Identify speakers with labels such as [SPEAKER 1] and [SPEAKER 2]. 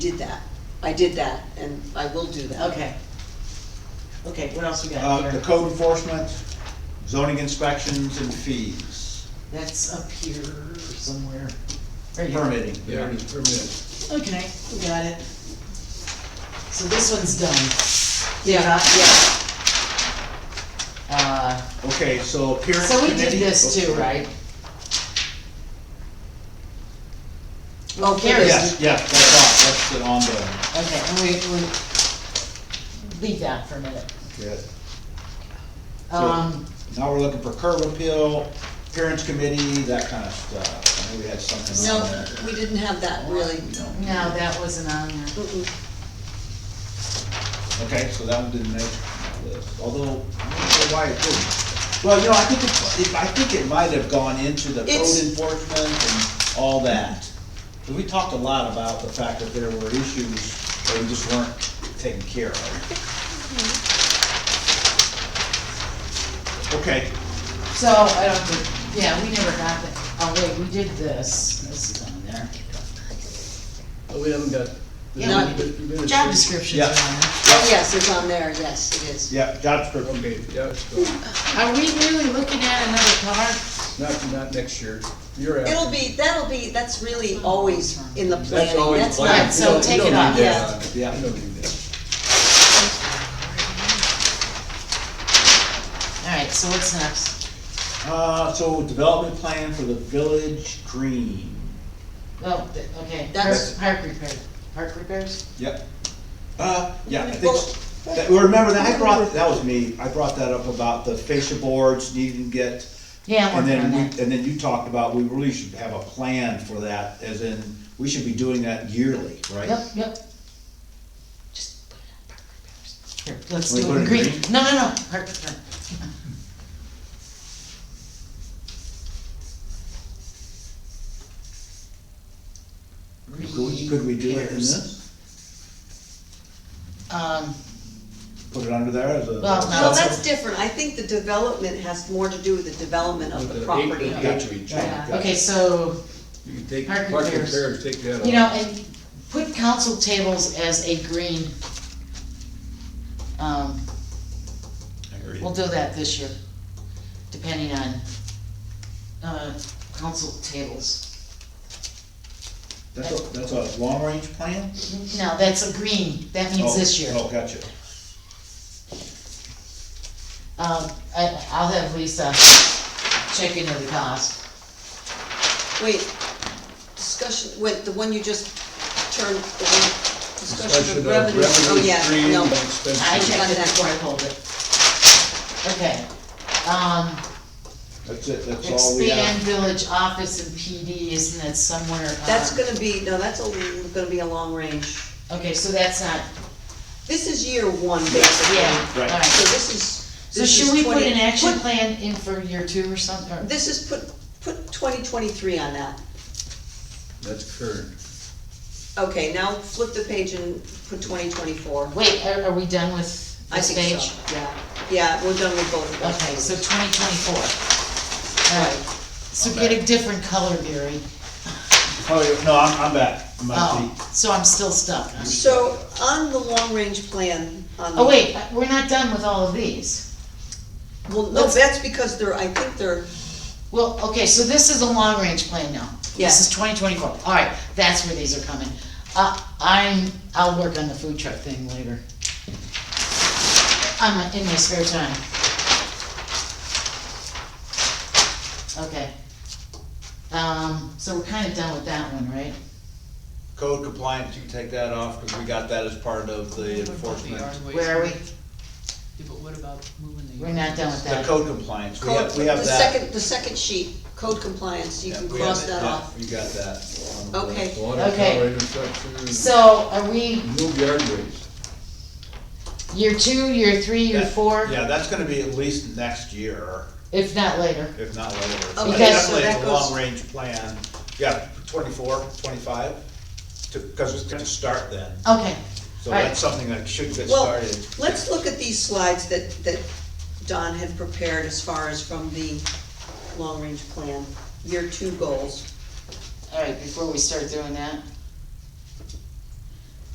[SPEAKER 1] did that. I did that, and I will do that.
[SPEAKER 2] Okay. Okay, what else we got
[SPEAKER 3] Uh, the
[SPEAKER 2] here?
[SPEAKER 3] code enforcement, zoning inspections and fees,
[SPEAKER 2] That's up here somewhere. There you go.
[SPEAKER 3] permitting.
[SPEAKER 4] Yeah, permit.
[SPEAKER 2] Okay, we got it. So this one's done.
[SPEAKER 1] Yeah, yeah,
[SPEAKER 2] Uh,
[SPEAKER 3] Okay, so appearance
[SPEAKER 2] so we
[SPEAKER 3] committee.
[SPEAKER 2] did this too, right? Oh, Karen's-
[SPEAKER 3] Yes, yeah, that's on, that's on the,
[SPEAKER 2] Okay, and we, we, leave that for a minute.
[SPEAKER 3] good. So-
[SPEAKER 2] Um,
[SPEAKER 3] Now we're looking for curb appeal, appearance committee, that kind of stuff. I know we had something on
[SPEAKER 1] no,
[SPEAKER 3] that.
[SPEAKER 1] we didn't have that really.
[SPEAKER 3] No.
[SPEAKER 2] no, that wasn't on there.
[SPEAKER 1] Mm-mm.
[SPEAKER 3] Okay, so that one didn't make the list, although, I don't know why it didn't. Well, you know, I think it, it- I think it might have gone into the code
[SPEAKER 1] It's-
[SPEAKER 3] enforcement and all that. 'Cause we talked a lot about the fact that there were issues that we just weren't taking care of. Okay,
[SPEAKER 2] So, I don't think, yeah, we never got that. Oh, wait, we did this. This is on there.
[SPEAKER 4] But Oh, we haven't got. the
[SPEAKER 2] Yeah,
[SPEAKER 1] we-
[SPEAKER 4] minutes
[SPEAKER 2] Job
[SPEAKER 4] yet.
[SPEAKER 2] descriptions are on there.
[SPEAKER 1] Oh, yes, it's on there, yes, it is.
[SPEAKER 3] yeah, job description,
[SPEAKER 4] Okay, yeah, it's gone.
[SPEAKER 2] Are we really looking at another car?
[SPEAKER 4] not, not next year, year after.
[SPEAKER 1] It'll be, that'll be, that's really always in the
[SPEAKER 4] That's
[SPEAKER 1] planning,
[SPEAKER 4] always
[SPEAKER 1] that's
[SPEAKER 4] planned.
[SPEAKER 2] Right,
[SPEAKER 1] not.
[SPEAKER 2] so
[SPEAKER 4] You don't-
[SPEAKER 2] take
[SPEAKER 4] you
[SPEAKER 2] it
[SPEAKER 4] don't
[SPEAKER 2] off.
[SPEAKER 4] need
[SPEAKER 1] Yeah.
[SPEAKER 4] that.
[SPEAKER 3] Yeah.
[SPEAKER 4] You don't need that.
[SPEAKER 2] Alright, so what's next?
[SPEAKER 3] uh, so development plan for the village green,
[SPEAKER 2] Oh, th- okay,
[SPEAKER 1] That's-
[SPEAKER 2] park, park repair, park repairs?
[SPEAKER 3] yep. Uh, yeah, I think,
[SPEAKER 1] Well,
[SPEAKER 3] s- that- well, remember that, I brought, that was me, I brought that up about the fascia boards needing to get
[SPEAKER 2] Yeah, I'm
[SPEAKER 3] And
[SPEAKER 2] working
[SPEAKER 3] then,
[SPEAKER 2] on
[SPEAKER 3] we-
[SPEAKER 2] that.
[SPEAKER 3] and then you talked about, we really should have a plan for that, as in, we should be doing that yearly, right?
[SPEAKER 2] Yep, yep. Just put it on park repairs. Here, let's
[SPEAKER 3] Wanna
[SPEAKER 2] do
[SPEAKER 3] put
[SPEAKER 2] it in
[SPEAKER 3] it in
[SPEAKER 2] green.
[SPEAKER 3] green?
[SPEAKER 2] No, no, no, park repair.
[SPEAKER 3] Could could we do it in this?
[SPEAKER 2] Um,
[SPEAKER 3] Put it under there as a.
[SPEAKER 2] Well, no.
[SPEAKER 1] No, that's different. I think the development has more to do with the development of
[SPEAKER 4] With
[SPEAKER 1] the
[SPEAKER 4] the
[SPEAKER 1] property.
[SPEAKER 4] acreage.
[SPEAKER 3] Oh,
[SPEAKER 4] Acreage.
[SPEAKER 2] yeah,
[SPEAKER 3] Gotcha.
[SPEAKER 2] okay, so,
[SPEAKER 4] You can take,
[SPEAKER 2] Park
[SPEAKER 4] park
[SPEAKER 2] repairs.
[SPEAKER 4] repairs, take that off.
[SPEAKER 2] you know, and put council tables as a green. Um,
[SPEAKER 3] Agreed.
[SPEAKER 2] We'll do that this year, depending on, uh, council tables.
[SPEAKER 3] That's a, that's a long-range plan?
[SPEAKER 2] No, that's a green, that means this
[SPEAKER 3] Oh,
[SPEAKER 2] year.
[SPEAKER 3] Oh, gotcha. oh.
[SPEAKER 2] Um, I, I'll have Lisa check into the cost.
[SPEAKER 1] Wait, discussion, wait, the one you just turned, the one, discussion of
[SPEAKER 4] Discussion
[SPEAKER 1] revenue, oh, yeah,
[SPEAKER 4] stream
[SPEAKER 1] no.
[SPEAKER 4] and expenses.
[SPEAKER 2] I checked it before I pulled it. Okay, um,
[SPEAKER 3] That's it, that's all we
[SPEAKER 2] expand
[SPEAKER 3] have.
[SPEAKER 2] village office and PD, isn't that somewhere? uh,
[SPEAKER 1] That's gonna be, no, that's a- gonna be a long range.
[SPEAKER 2] Okay, so that's not,
[SPEAKER 1] This is year one, basically.
[SPEAKER 2] yeah,
[SPEAKER 3] Right.
[SPEAKER 1] So
[SPEAKER 2] alright.
[SPEAKER 1] this is.
[SPEAKER 2] So
[SPEAKER 1] this is
[SPEAKER 2] should we put
[SPEAKER 1] 20
[SPEAKER 2] an action
[SPEAKER 1] put-
[SPEAKER 2] plan in for year two or something, or?
[SPEAKER 1] This is, put, put twenty twenty-three on that.
[SPEAKER 4] That's current.
[SPEAKER 1] Okay, now flip the page and put twenty twenty-four.
[SPEAKER 2] Wait, are, are we done with
[SPEAKER 1] I
[SPEAKER 2] this
[SPEAKER 1] think
[SPEAKER 2] page?
[SPEAKER 1] so, yeah. Yeah, we're done with both of those.
[SPEAKER 2] Okay, so twenty twenty-four. Alright, so get a different color, Gary.
[SPEAKER 3] Oh, yeah, no, I'm, I'm back. I'm back.
[SPEAKER 2] Oh, so I'm still stuck. huh?
[SPEAKER 1] So on the long-range plan, on.
[SPEAKER 2] Oh, wait, we're not done with all of these.
[SPEAKER 1] Well, no, that's because they're, I think they're,
[SPEAKER 2] Well, okay, so this is a long-range plan now. This is twenty twenty-four. Alright, that's where these are coming. Uh, I'm, I'll work on the food truck thing later. I'm in my spare time. Okay. Um, so we're kinda done with that one, right?
[SPEAKER 3] Code compliance, you can take that off, because we got that as part of the enforcement.
[SPEAKER 2] Where are we?
[SPEAKER 5] Yeah, but what about moving the?
[SPEAKER 2] We're not done with
[SPEAKER 3] The
[SPEAKER 2] that.
[SPEAKER 3] code compliance, we
[SPEAKER 1] code,
[SPEAKER 3] have, we have
[SPEAKER 1] the
[SPEAKER 3] that.
[SPEAKER 1] second, the second sheet, code compliance, you
[SPEAKER 3] Yeah,
[SPEAKER 1] can
[SPEAKER 3] we have
[SPEAKER 1] cross
[SPEAKER 3] it.
[SPEAKER 1] that
[SPEAKER 3] Yeah,
[SPEAKER 1] off.
[SPEAKER 3] You got that.
[SPEAKER 1] Okay.
[SPEAKER 4] Water
[SPEAKER 2] Okay.
[SPEAKER 4] tower infrastructure.
[SPEAKER 2] So are we
[SPEAKER 4] Move yard waste.
[SPEAKER 2] year two, year three, year
[SPEAKER 3] That-
[SPEAKER 2] four,
[SPEAKER 3] Yeah, that's gonna be at least next year.
[SPEAKER 2] if not later?
[SPEAKER 3] if not later.
[SPEAKER 1] Okay,
[SPEAKER 3] But
[SPEAKER 2] so
[SPEAKER 3] Definitely
[SPEAKER 1] that
[SPEAKER 3] it's a
[SPEAKER 1] goes-
[SPEAKER 3] long-range plan, yeah, twenty-four, twenty-five, to, cause it's gonna start then.
[SPEAKER 2] Okay,
[SPEAKER 3] So
[SPEAKER 2] Right.
[SPEAKER 3] that's something that should get
[SPEAKER 1] Well,
[SPEAKER 3] started.
[SPEAKER 1] let's look at these slides that, that Don had prepared as far as from the long-range plan, year two goals.
[SPEAKER 2] all right, before we start doing that,